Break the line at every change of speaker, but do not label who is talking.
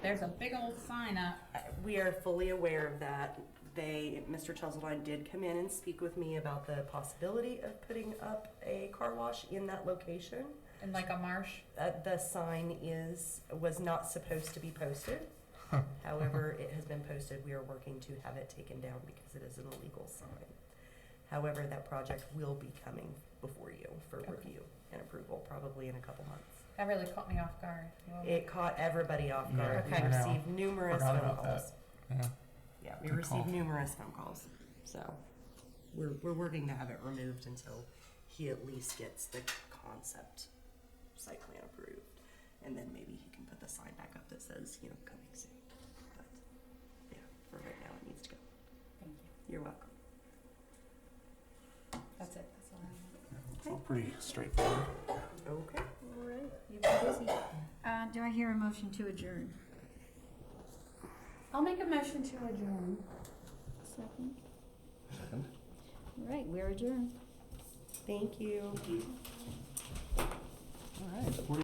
there's a big old sign up.
We are fully aware of that. They, Mr. Chesledine did come in and speak with me about the possibility of putting up a car wash in that location.
In like a marsh?
Uh, the sign is, was not supposed to be posted. However, it has been posted. We are working to have it taken down because it is an illegal sign. However, that project will be coming before you for
Okay.
review and approval, probably in a couple months.
That really caught me off guard. Well,
It caught everybody off
Yeah,
guard.
I
We
know.
received numerous
Forgot
phone
about that.
calls.
Yeah.
Yeah, we
Good
received
call.
numerous phone calls. So we're, we're working to have it removed until he at least gets the concept site plan approved. And then maybe he can put the sign back up that says, you know, coming soon. But yeah, for right now, it needs to go.
Thank you.
You're welcome.
That's it. That's all I
It's all pretty straightforward.
Okay.
All right, you've been busy. Uh, do I hear a motion to adjourn?
I'll make a motion to adjourn.
Second? Second. All right, we're adjourned.
Thank you.
All right.